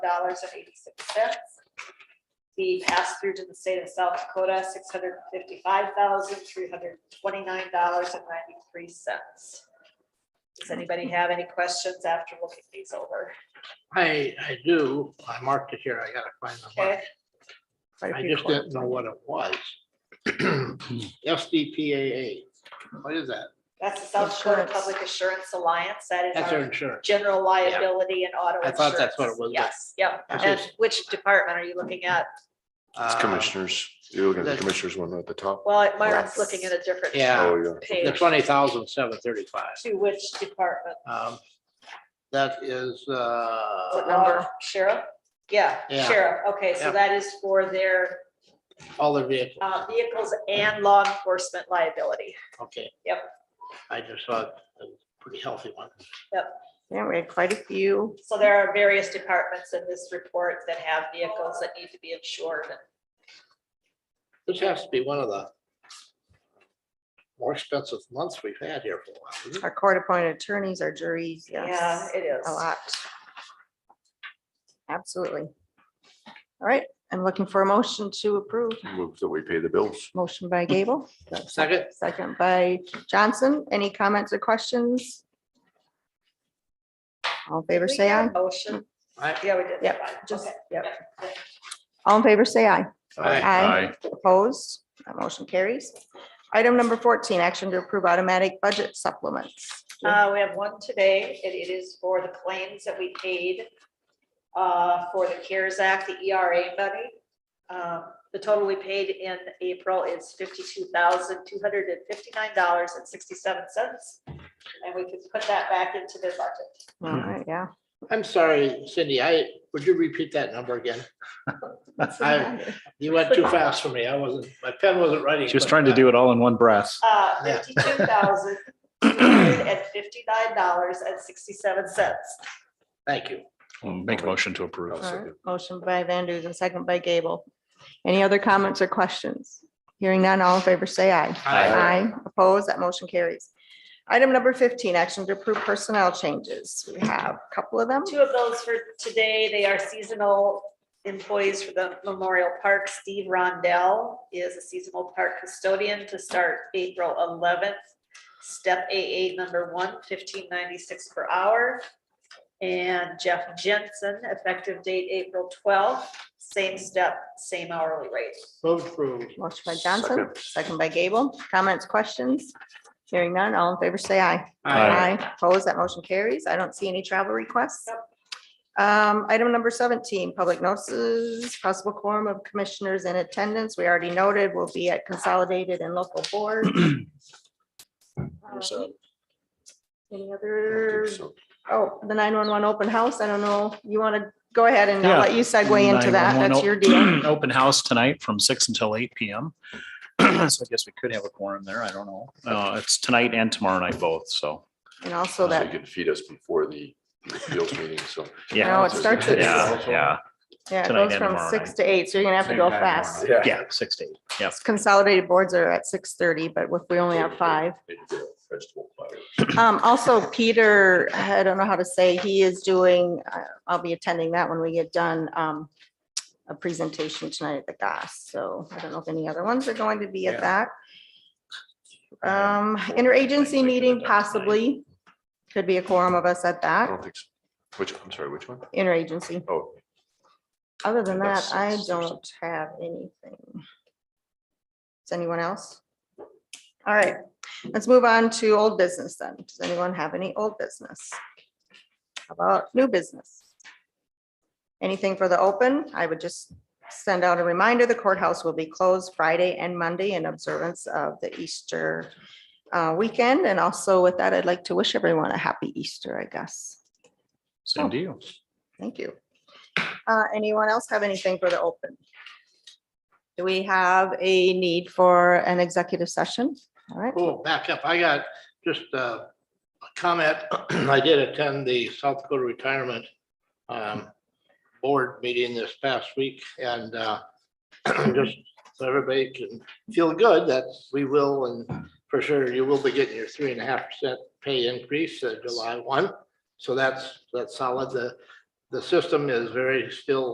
dollars and eighty-six cents. The pass-through to the state of South Dakota, six hundred fifty-five thousand, three hundred twenty-nine dollars and ninety-three cents. Does anybody have any questions after looking these over? I, I do. I marked it here. I gotta find the Okay, mark. I just didn't know what it was. SDPAA. What is that? that's the South Dakota Insurance. Public Assurance Alliance. That is That's our our insurance. general liability and auto I insurance. thought that's what it was, but- Yes, yep. That's And just- which department are you looking at? It's Uh, commissioners. You're looking at the that's- commissioners one at the top. Well, Martin's Yes. looking at a different. Yeah. Oh, yeah. The Page twenty thousand seven thirty-five. to which department? Um, that is, uh, What number? Uh, Sheriff? Yeah, Yeah. sheriff. Okay, so Yeah. that is for their all the vehicles. uh, vehicles and law enforcement liability. Okay. Yep. I just saw it. It was a pretty healthy one. Yeah, we had quite a few. So there are various departments in this report that have vehicles that need to be insured. This has to be one of the more expensive months we've had here for a while. isn't it? Our court-appointed attorneys, our juries, Yeah, yes, it is. a lot. Absolutely. All right, I'm looking for a motion to approve. Move that we pay the bills. Motion by Gable, Second, second by Johnson. Any comments or questions? All in favor, We say got aye. a Motion. Aye. Yeah, we did. Yep, Fine, just, okay. yep. All in favor, say aye. Aye. Aye. Opposed, that motion carries. Item number fourteen, action to approve automatic budget supplements. Uh, we have one today, and it is for the claims that we paid uh, for the CARES Act, the ERA money. Um, The total we paid in April is fifty-two thousand, two hundred and fifty-nine dollars and sixty-seven cents. And we could put that back into the budget. All Hmm. right, yeah. I'm sorry, Cindy, I, would you repeat that number again? I, you went too fast for me. I wasn't, my pen wasn't writing. She was trying to do it all in one breath. Uh, Yeah. fifty-two thousand, two hundred and fifty-nine dollars and sixty-seven cents. Thank you. Make a motion to approve. I'll All right, second. Motion by Van Duzen, second by Gable. Any other comments or questions? Hearing none, all in favor, say aye. Aye. Opposed, that motion carries. Item number fifteen, action to approve personnel changes. We have a couple of them. Two of those for today, they are seasonal employees for the Memorial Park. Steve Rondell is a seasonal park custodian to start April eleventh. Step A eight, number one, fifteen ninety-six per hour. And Jeff Jensen, effective date April twelfth, same step, same hourly rate. Vote approved. Motion by Johnson, second by Gable. Comments, questions? Hearing none, all in favor, say aye. Aye. Opposed, that motion carries. I don't see any travel requests. Nope. Um, item number seventeen, public notices, possible quorum of commissioners in attendance. We already noted will be at consolidated and local board. Um, There's a- Any I don't other, think so. oh, the nine-one-one open house, I don't know, you want to go ahead and I'll Yeah. let you segue into that, 911 that's op- your deal. Open house tonight from six until eight PM. So I guess we could have a quorum there. I don't know. Uh, it's tonight and tomorrow night both, so. And also They that, can feed us before the appeals meeting, so. No, Yeah, it starts at yeah, yeah, yeah, it tonight goes and from tomorrow six night. to eight, so you're gonna have to go fast. yeah, six to eight. Yeah. Consolidated boards are at six-thirty, but if we only have five. Vegetable platter. Um, also Peter, I don't know how to say, he is doing, uh, I'll be attending that when we get done, um, a presentation tonight at the GAS, so I don't know if any other ones are going to be at that. Um, interagency meeting possibly, could be a quorum of us at I that, don't think so. Which, I'm sorry, which one? interagency. Oh, Other than that, That's I six or don't have anything. Does anyone else? All right, let's move on to old business then. Does anyone have any old business? How About new business? Anything for the open? I would just send out a reminder, the courthouse will be closed Friday and Monday in observance of the Easter uh, weekend. And also with that, I'd like to wish everyone a happy Easter, I guess. Same to you. Thank you. Uh, Anyone else have anything for the open? Do we have a need for an executive session? All right, Oh, back up. I got just uh, a comment. I did attend the South Dakota Retirement um, Board meeting this past week and uh, just so everybody can feel good that we will, and for sure, you will be getting your three and a half percent pay increase uh, July one. So that's, that's solid. The the system is very still